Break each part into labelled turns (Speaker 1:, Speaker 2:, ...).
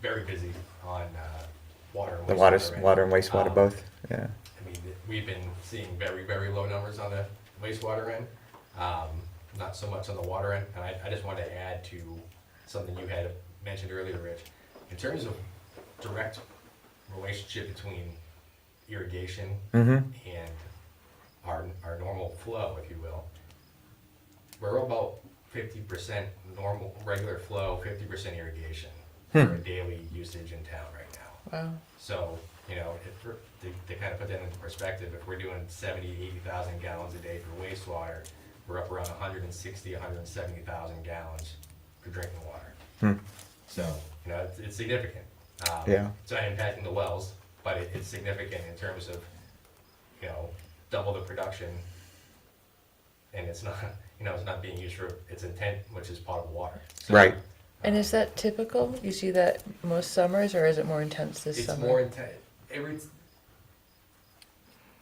Speaker 1: very busy on uh, water. And
Speaker 2: The
Speaker 1: wastewater
Speaker 2: water,
Speaker 1: end.
Speaker 2: water and wastewater
Speaker 1: Um,
Speaker 2: both, yeah.
Speaker 1: I mean, th- we've been seeing very, very low numbers on the wastewater end, um, not so much on the water end. And I, I just wanted to add to something you had mentioned earlier, Rich. In terms of direct relationship between irrigation
Speaker 2: Mm-hmm,
Speaker 1: and our, our normal flow, if you will, we're about fifty percent normal, regular flow, fifty percent irrigation for daily usage in town right now.
Speaker 3: Wow.
Speaker 1: So, you know, if, we're- to, to kind of put that into perspective, if we're doing seventy, eighty thousand gallons a day for wastewater, we're up around hundred and sixty, hundred and seventy thousand gallons for drinking water. So, you know, it's, it's significant. Um,
Speaker 2: Yeah.
Speaker 1: It's not impacting the wells, but it, it's significant in terms of, you know, double the production. And it's not, you know, it's not being used for its intent, which is potable water. So,
Speaker 2: Right.
Speaker 3: And is that typical? You see that most summers, or is it more intense this
Speaker 1: it's
Speaker 3: summer?
Speaker 1: more intense. Every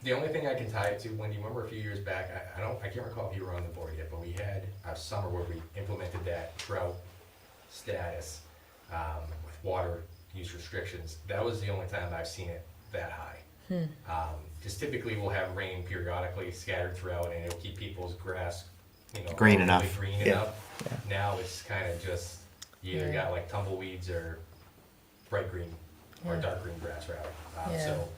Speaker 1: the only thing I can tie it to, Wendy, remember a few years back, I, I don't, I can't recall if you were on the board yet, but we had a summer where we implemented that drought status um, with water use restrictions. That was the only time I've seen it that
Speaker 3: Hmm.
Speaker 1: high. Because typically we'll have rain periodically scattered throughout, and it'll keep people's grass, you know,
Speaker 4: Green
Speaker 1: hopefully
Speaker 4: enough.
Speaker 1: green
Speaker 2: Yeah.
Speaker 1: enough. Now it's kind of just you either
Speaker 3: Yeah.
Speaker 1: got like tumbleweeds or bright green or
Speaker 3: Yeah.
Speaker 1: dark green grass rather. Um,
Speaker 3: Yeah.
Speaker 1: So,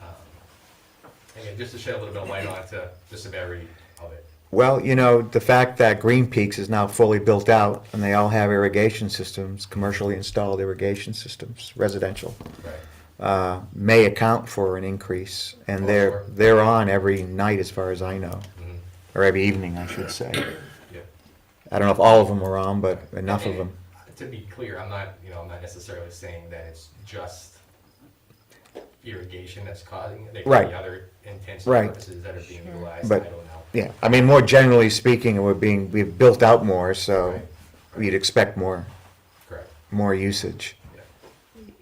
Speaker 1: um, again, just to shed a little bit of light onto the severity of it.
Speaker 2: Well, you know, the fact that Green Peaks is now fully built out and they all have irrigation systems, commercially installed irrigation systems, residential,
Speaker 1: Right.
Speaker 2: uh, may account for an increase. And they're,
Speaker 1: Oh, sure.
Speaker 2: they're on every night as far as I know,
Speaker 1: Mhm.
Speaker 2: or every evening, I should say.
Speaker 1: Yeah.
Speaker 2: I don't know if all of them are on, but enough of them.
Speaker 1: And To be clear, I'm not, you know, I'm not necessarily saying that it's just irrigation that's causing it. There could
Speaker 2: Right.
Speaker 1: be other intense
Speaker 2: Right.
Speaker 1: purposes that are being utilized.
Speaker 2: But-
Speaker 1: I don't know.
Speaker 2: Yeah, I mean, more generally speaking, we're being, we've built out more, so you'd expect more,
Speaker 1: Correct.
Speaker 2: more usage.
Speaker 1: Yeah.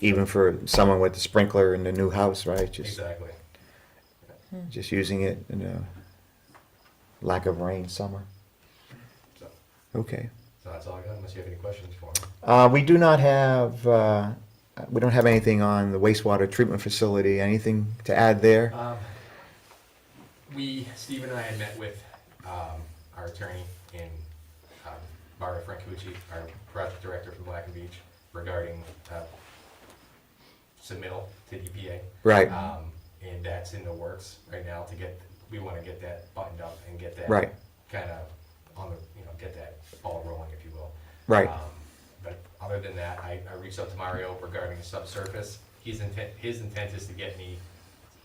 Speaker 2: even for someone with the sprinkler in the new house, right? Just
Speaker 1: Exactly.
Speaker 2: just using it in a lack of rain summer.
Speaker 1: So,
Speaker 2: Okay.
Speaker 1: so that's all I got. Unless you have any questions for me.
Speaker 2: Uh, we do not have uh, we don't have anything on the wastewater treatment facility. Anything to add there?
Speaker 1: Um, we, Steve and I had met with, um, our attorney in, um, Barbara Francucci, our project director from Black and Beach, regarding, uh, submittal to DPA.
Speaker 2: Right.
Speaker 1: Um, and that's in the works right now to get, we wanna get that buttoned up and get that.
Speaker 2: Right.
Speaker 1: Kinda on the, you know, get that ball rolling, if you will.
Speaker 2: Right.
Speaker 1: Um, But other than that, I, I reached out to Mario regarding the subsurface. His intent, his intent is to get me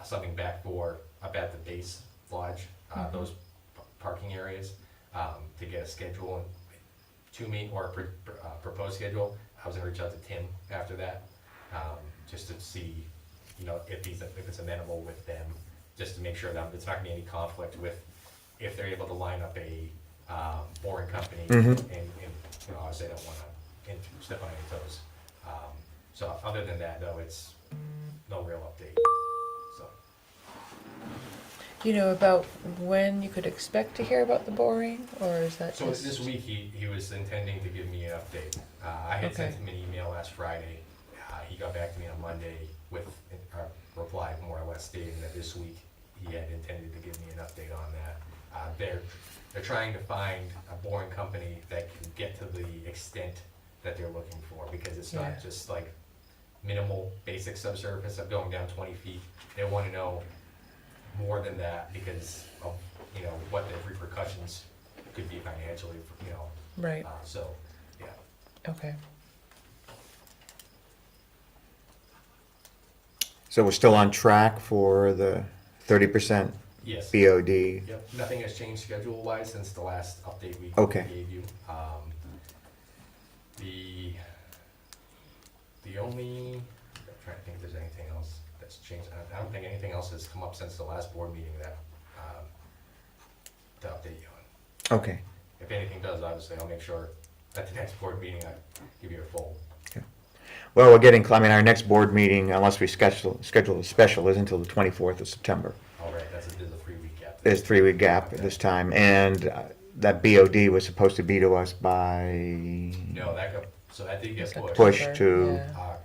Speaker 1: something back for, up at the base lodge, uh, those p- parking areas, um, to get a schedule and to me or a pr- pr- uh, proposed schedule. I was gonna reach out to Tim after that, um, just to see, you know, if he's, if it's amenable with them, just to make sure that it's not gonna be any conflict with, if they're able to line up a, um, boring company. And,
Speaker 2: Mhm.
Speaker 1: and, you know, obviously I don't wanna in- step on any toes. Um, so other than that though, it's no real update, so.
Speaker 3: You know about when you could expect to hear about the boring, or is that
Speaker 1: So
Speaker 3: just
Speaker 1: this week, he, he was intending to give me an update. Uh, I had sent
Speaker 3: Okay.
Speaker 1: him an email last Friday. Uh, he got back to me on Monday with a reply more or less stating that this week he had intended to give me an update on that. Uh, they're, they're trying to find a boring company that can get to the extent that they're looking for because it's
Speaker 3: Yeah.
Speaker 1: not just like minimal basic subsurface of going down twenty feet. They want to know more than that because of, you know, what the repercussions could be financially, you know,
Speaker 3: right?
Speaker 1: uh, so, yeah.
Speaker 3: Okay.
Speaker 2: So we're still on track for the 30%
Speaker 1: Yes.
Speaker 2: BOD.
Speaker 1: Yep, nothing has changed schedule-wise since the last update we
Speaker 2: Okay.
Speaker 1: gave you. Um, The, the only, I'm trying to think if there's anything else that's changed. I- I don't think anything else has come up since the last board meeting that, um, to update you on.
Speaker 2: Okay.
Speaker 1: If anything does, obviously, I'll make sure at the next board meeting, I give you a full.
Speaker 2: Well, we're getting. cl- I mean, our next board meeting, unless we schedule schedule a special, is until the 24th of September.
Speaker 1: All right, that's a, there's a three-week gap.
Speaker 2: there's three week gap at this time, and uh, that BOD was supposed to be to us by
Speaker 1: No, that got, so that did get
Speaker 3: It's
Speaker 1: pushed.
Speaker 2: Push
Speaker 3: October,
Speaker 2: to-
Speaker 3: yeah.
Speaker 1: Uh,